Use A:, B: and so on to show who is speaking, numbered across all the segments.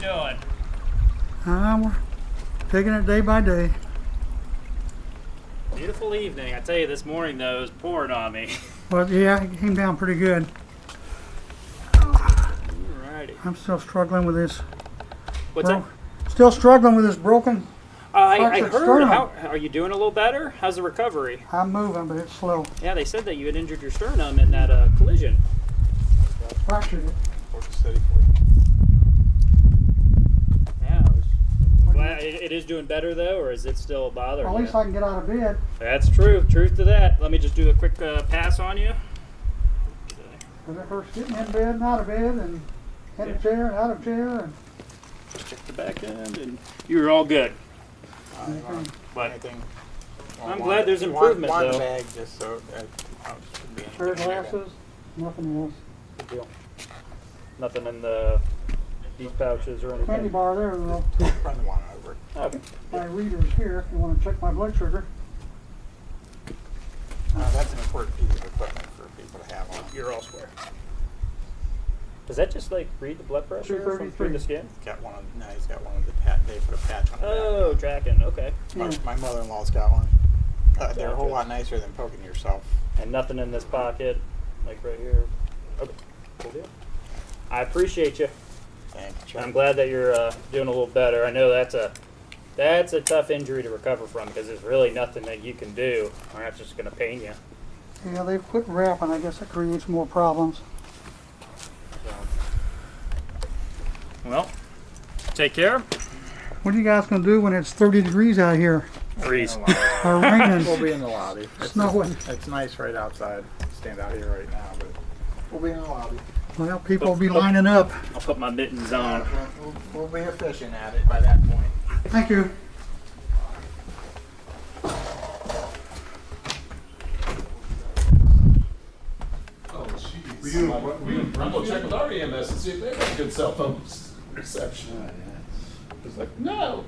A: doing?
B: Uh, we're taking it day by day.
A: Beautiful evening. I tell you, this morning though, it was pouring on me.
B: But yeah, it came down pretty good.
A: Alrighty.
B: I'm still struggling with this.
A: What's up?
B: bro- Still struggling with this broken.
A: Uh, I, I
B: Toxic
A: heard.
B: sternum.
A: How are you doing? A little better? How's the recovery?
B: I'm moving, but it's slow.
A: Yeah, they said that you had injured your sternum in that uh, collision.
B: Fractured it.
C: Working steady for you.
A: Yeah. I was- Well, it, it is doing better though, or is it still bothering
B: At
A: you?
B: least I can get out of bed.
A: That's true. Truth to that. Let me just do a quick uh, pass on you.
B: Because at first getting in bed and out of bed and in
A: Yeah.
B: a chair and out of chair and
A: Check the back end, and you're all good.
B: everything.
A: But
C: Anything?
A: I'm
C: One-
A: glad there's
C: one-
A: improvement,
C: one
A: though.
C: bag just so that I was being-
B: pair of glasses, nothing else.
A: nothing in the these pouches or anything. Oh,
B: Candy bar there though.
C: Run the one over.
A: Okay.
B: My reader's here if you want to check my blood sugar.
C: Uh, that's an important piece of equipment for people to have on.
A: You're all square. Does that just like read the blood pressure from through
B: 233.
A: the skin?
C: Got one of, no, he's got one of the pat, they put a patch on it.
A: Oh, tracking. Okay.
C: My,
B: Yeah.
C: my mother-in-law's got one. Uh, they're a whole
A: Gotcha.
C: lot nicer than poking yourself.
A: And nothing in this pocket, like right here. Okay. Cool deal. I appreciate you.
C: Thank you, Chuck.
A: I'm glad that you're uh, doing a little better. I know that's a that's a tough injury to recover from because there's really nothing that you can do, or that's just gonna pain you.
B: Yeah, they've quit wrapping. I guess that creates more problems.
A: So. Well, take care.
B: What are you guys gonna do when it's 30 degrees out here
A: Freeze.
B: or
C: We'll
B: raining,
C: be in the lobby. It's,
B: snowing?
C: it's nice right outside. Stand out here right now, but we'll be in the lobby.
B: Well, people will be lining up.
A: I'll put my mittens on.
C: We'll, we'll, we'll be fishing at it by that point.
B: Thank you.
D: We do, we do, I'm gonna check with our EMS and see if they have good cell phone s- reception. It's like, no.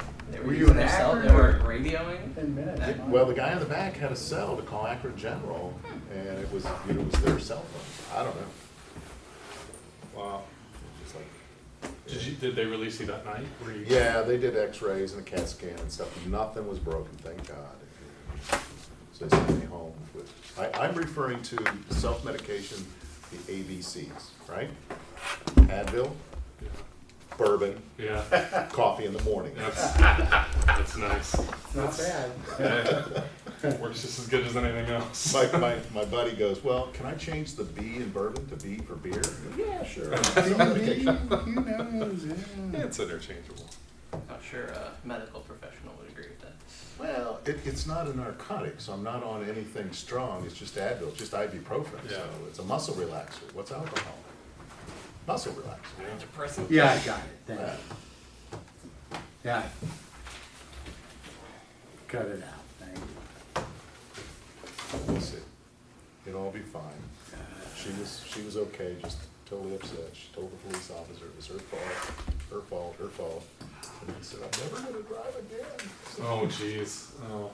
E: Oh, Were you an actor? They were radioing?
F: Well, the guy in the back had a cell to call Akron General,
E: Hmm.
F: and it was, it was their cell phone. I don't know. Wow. It's like-
D: Did you, did they release you that night? Were you-
F: Yeah, they did x-rays and a CAT scan and stuff. Nothing was broken, thank God. So they sent me home with, I, I'm referring to self-medication, the ABCs, right? Advil, bourbon,
D: Yeah,
F: coffee in the morning.
D: that's, that's nice.
C: Not bad.
D: Works just as good as anything else.
F: My, my, my buddy goes, well, can I change the B in bourbon to B for beer? Yeah, sure.
C: Who knows?
D: Yeah, It's interchangeable.
E: I'm sure a medical professional would agree with that.
F: Well, it, it's not a narcotic, so I'm not on anything strong, it's just Advil, it's just ibuprofen, so
D: Yeah.
F: it's a muscle relaxer, what's alcohol? Muscle relaxer.
E: Antidepressant?
G: Yeah, I got it, thank
F: Yeah.
G: you. Yeah. Cut it out, thank you.
F: We'll see, it'll all be fine. She was, she was okay, just totally upset, she told the police officer it was her fault, her fault, her fault. And I said, I'm never gonna drive again.
D: Oh, jeez. Oh.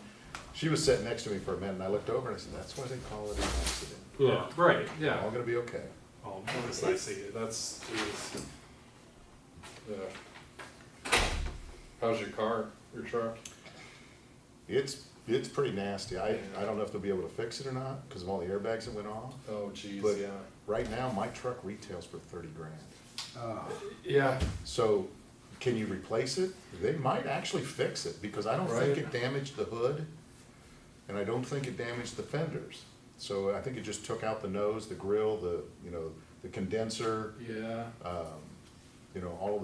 F: She was sitting next to me for a minute, and I looked over and I said, that's why they call it an accident,
D: Yeah, right,
F: we're all
D: yeah.
F: gonna be okay.
D: Oh, that's nice of you. That's, jeez. Yeah. How's your car, your truck?
F: It's, it's pretty nasty, I, I don't know if they'll be able to fix it or not, because of all the airbags that went off.
D: Oh, jeez,
F: But-
D: yeah.
F: Right now, my truck retails for thirty grand.
G: Oh,
D: Yeah,
F: So can you replace it? They might actually fix it because I don't think
D: Right.
F: it damaged the hood and I don't think it damaged the fenders. So I think it just took out the nose, the grill, the, you know, the condenser,
D: yeah.
F: you know, all of